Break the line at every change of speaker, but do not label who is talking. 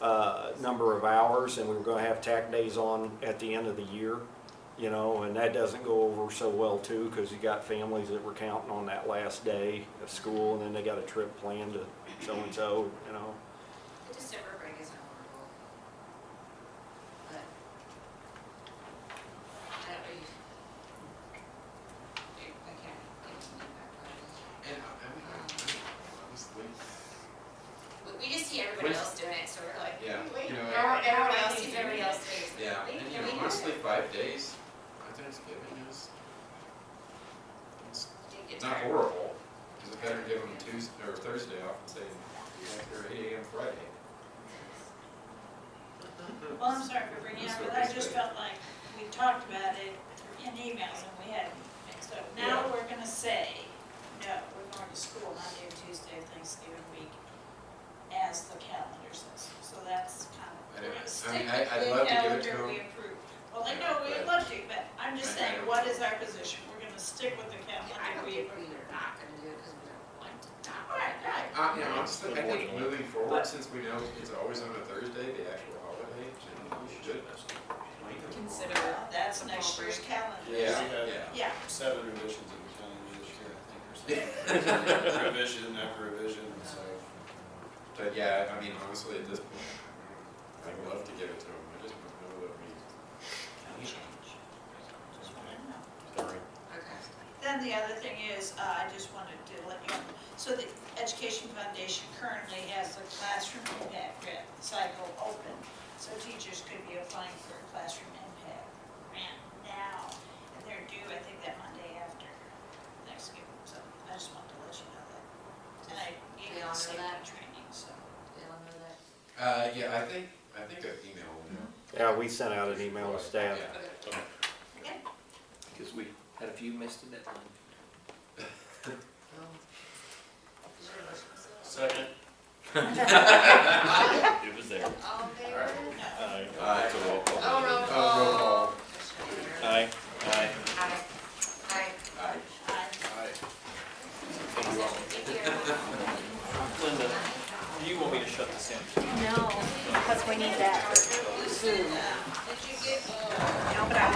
uh, number of hours, and we were gonna have tack days on at the end of the year, you know, and that doesn't go over so well too, because you got families that were counting on that last day of school, and then they got a trip planned to so-and-so, you know.
The December break is horrible. But. I don't really. I can't get to the back part of it.
And I, I mean, I- I was thinking,
But we just see everybody else doing it, so we're like,
yeah, you know,
how,
and-
everyone else sees everybody else doing it.
yeah,
We-
and you
we
know,
have
honestly,
it.
five days, my Thanksgiving is, it's
Didn't get
it's not
tired.
horrible, because I better give them Tuesday, or Thursday off and say, you're after eight AM Friday.
Well, I'm sorry for bringing it up, but I just felt like we talked about it in emails and we had, so now
Yeah.
we're gonna say, no, we're going to school Monday or Tuesday of Thanksgiving week as the calendar says, so that's kind of.
I don't-
we're gonna
I mean,
stick
I-
with
I'd
the
love to give it to
calendar we
them.
approved. Well, I
Yeah,
know, we'd
but-
love to, but I'm
I-
just
I
saying,
don't-
what is our position? We're gonna stick with the
I
calendar
don't think
we approved.
we're not gonna do it because we don't want to not.
Right, right.
Uh, you know, honestly, I think
Unfortunately.
moving
But-
forward, since we know it's always on a Thursday, the actual holiday, then we should.
Consider.
Well, That's next year's calendar.
Yeah,
Yeah.
yeah.
Yeah,
Seven revisions in the calendar this year, I think, or something. Revision after revision, so.
But yeah, I mean, honestly, at this point, I'd love to give it to them, I just don't know that we.
just wanted to know.
Sorry.
Okay.
Then the other thing is, uh, I just wanted to let you know, so the Education Foundation currently has the classroom impact grant cycle open, so teachers could be applying for a classroom impact grant now, and they're due, I think, that Monday after Thanksgiving, so I just wanted to let you know that. And I gave you
Yeah, I
the
know
safety
that.
training, so.
They all know that.
Uh, yeah, I think, I think I emailed them.
Yeah, we sent out an email to staff.
Yeah.
Okay.
Because we had a few missed a deadline.
Is there a motion?
Second. It was there.
All in favor?
Aye.
Aye.
Oh, roll
Uh, roll
call.
call.
Aye. Aye.
Aye. Aye.
Aye.
I
Aye.
Linda, you want me to shut this down?
No, because we need that.
Did you get, uh,
No, but I